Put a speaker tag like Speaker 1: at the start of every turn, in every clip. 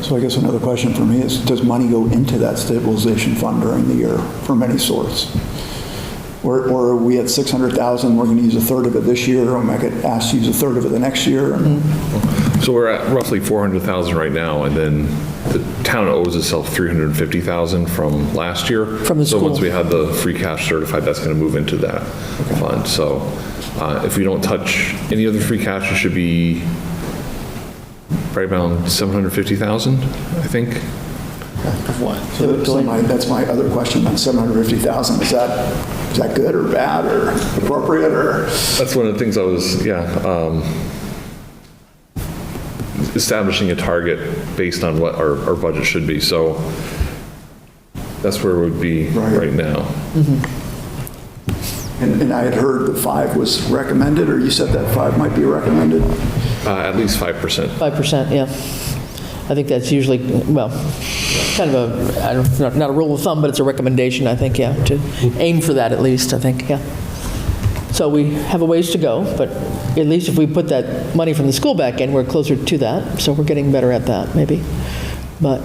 Speaker 1: So I guess another question for me is, does money go into that stabilization fund during the year from any source? Or, or are we at 600,000, we're going to use a third of it this year, and I could ask to use a third of it the next year? and-
Speaker 2: So we're at roughly 400,000 right now, and then the town owes itself 350,000 from last year.
Speaker 3: From the
Speaker 2: So once
Speaker 3: school.
Speaker 2: we have the free cash certified, that's going to move into that fund. So uh, if we don't touch any of the free cash, it should be right around 750,000, I think.
Speaker 1: So that's my- That's my other question, that 750,000, is that, is that good or bad or appropriate or?
Speaker 2: That's one of the things I was, yeah, um, establishing a target based on what our, our budget should be. So that's where we'd be
Speaker 1: Right.
Speaker 2: right now.
Speaker 1: And and I had heard that five was recommended, or you said that five might be recommended?
Speaker 2: Uh, At least 5%.
Speaker 3: 5%, yeah. I think that's usually, well, kind of a, I don't, not- not a rule of thumb, but it's a recommendation, I think, yeah, to aim for that at least, I think, yeah. So we have a ways to go, but at least if we put that money from the school back in, we're closer to that, so we're getting better at that, maybe. But,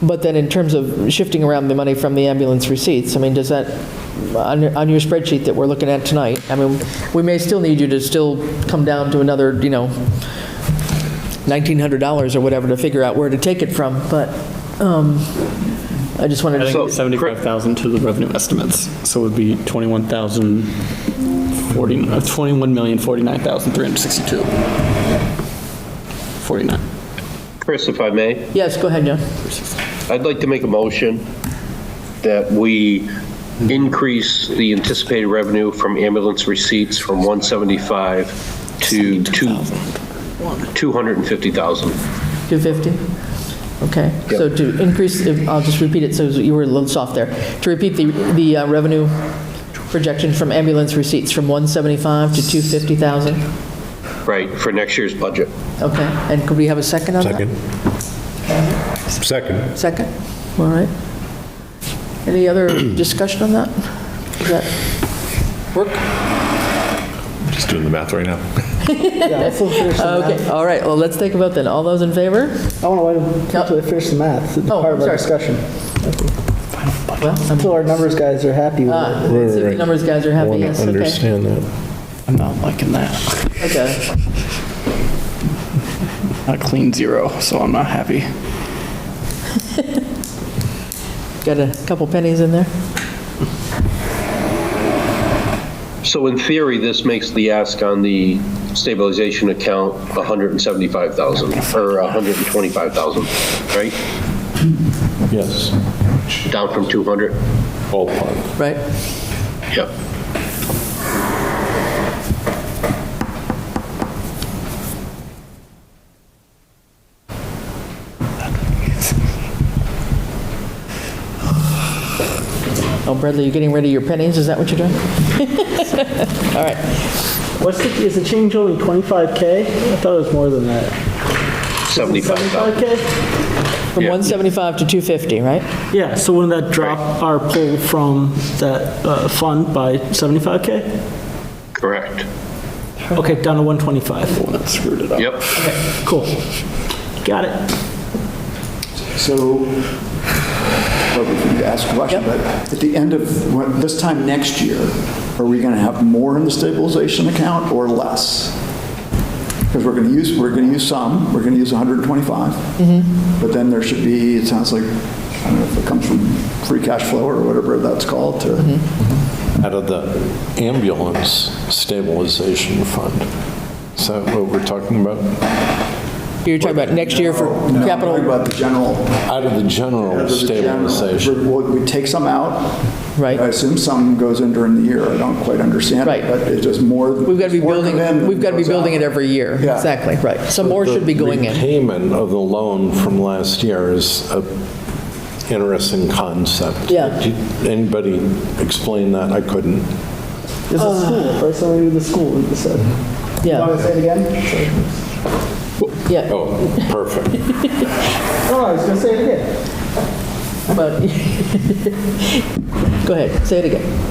Speaker 3: but then in terms of shifting around the money from the ambulance receipts, I mean, does that, on your- on your spreadsheet that we're looking at tonight, I mean, we may still need you to still come down to another, you know, $1,900 or whatever to figure out where to take it from, but um, I just wanted
Speaker 4: I
Speaker 3: to.
Speaker 4: think it's 75,000 to the revenue estimates, so it would be 21,000, 40, uh, 21,049,362. 49.
Speaker 5: Chris, if I may,
Speaker 3: Yes, go ahead, John.
Speaker 5: I'd like to make a motion that we increase the anticipated revenue from ambulance receipts from 175 to two- 250,000.
Speaker 3: 250? Okay, so to increase, I'll just repeat it, so you were a little soft there. To repeat the, the uh, revenue projection from ambulance receipts from 175 to 250,000?
Speaker 5: Right, for next year's budget.
Speaker 3: Okay, and could we have a second on that?
Speaker 6: Second. Second.
Speaker 3: Second, all right. Any other discussion on that? Does that work?
Speaker 2: Just doing the math right now.
Speaker 7: Yeah, let's finish the math.
Speaker 3: Okay, all right, well, let's take a vote then. All those in favor?
Speaker 7: I want to wait until we finish the math, the
Speaker 3: Oh,
Speaker 7: part of our
Speaker 3: sorry.
Speaker 7: discussion.
Speaker 3: Well, I'm-
Speaker 7: Until our numbers guys are happy with it.
Speaker 3: ah, let's see if the numbers guys are happy, yes, okay.
Speaker 6: Understand that.
Speaker 4: I'm not liking that.
Speaker 3: Okay,
Speaker 4: Not clean zero, so I'm not happy.
Speaker 3: got a couple pennies in there?
Speaker 5: So in theory, this makes the ask on the stabilization account 175,000 or 125,000, right?
Speaker 6: Yes.
Speaker 5: Down from 200?
Speaker 6: Ballpark.
Speaker 3: Right?
Speaker 5: Yep.
Speaker 3: Oh, Bradley, you're getting rid of your pennies, is that what you're doing? All right,
Speaker 7: What's the, is the change only 25K? I thought it was more than that.
Speaker 5: 75,000.
Speaker 7: 75K?
Speaker 3: from 175 to 250, right?
Speaker 7: Yeah, so wouldn't that drop our pull from that uh, fund by 75K?
Speaker 5: Correct.
Speaker 7: Okay, down to 125.
Speaker 4: When I screwed it up.
Speaker 5: Yep.
Speaker 7: Cool. Got it.
Speaker 1: So, probably for you to ask a question, but at the end of, when- this time next year, are we going to have more in the stabilization account or less? Because we're going to use, we're going to use some, we're going to use 125.
Speaker 3: Mm-hmm.
Speaker 1: But then there should be, it sounds like, I don't know if it comes from free cash flow or whatever that's called to.
Speaker 3: Mm-hmm.
Speaker 6: Out of the ambulance stabilization fund. Is that what we're talking about?
Speaker 3: You're talking about next year for
Speaker 1: No, I'm talking
Speaker 3: capital,
Speaker 1: About the general
Speaker 6: Out of the general
Speaker 1: As of the general,
Speaker 6: stabilization.
Speaker 1: We we take some out.
Speaker 3: Right.
Speaker 1: I assume some goes in during the year. I don't quite understand. it,
Speaker 3: Right.
Speaker 1: But it's just more.
Speaker 3: we've got to be
Speaker 1: more
Speaker 3: building,
Speaker 1: come in than
Speaker 3: we've got to be
Speaker 1: goes out.
Speaker 3: building it every year.
Speaker 1: Yeah.
Speaker 3: Exactly, right. Some more should be going
Speaker 6: The
Speaker 3: in.
Speaker 6: Repayment of the loan from last year is a interesting concept.
Speaker 3: Yeah.
Speaker 6: Did Anybody explain that? I couldn't.
Speaker 7: It's a school, right? Something to do with the school, you said. You want
Speaker 3: Yeah,
Speaker 7: to say it again?
Speaker 3: yeah,
Speaker 6: Oh, perfect.
Speaker 7: No, I was going to say it again.
Speaker 3: but, go ahead, say it again.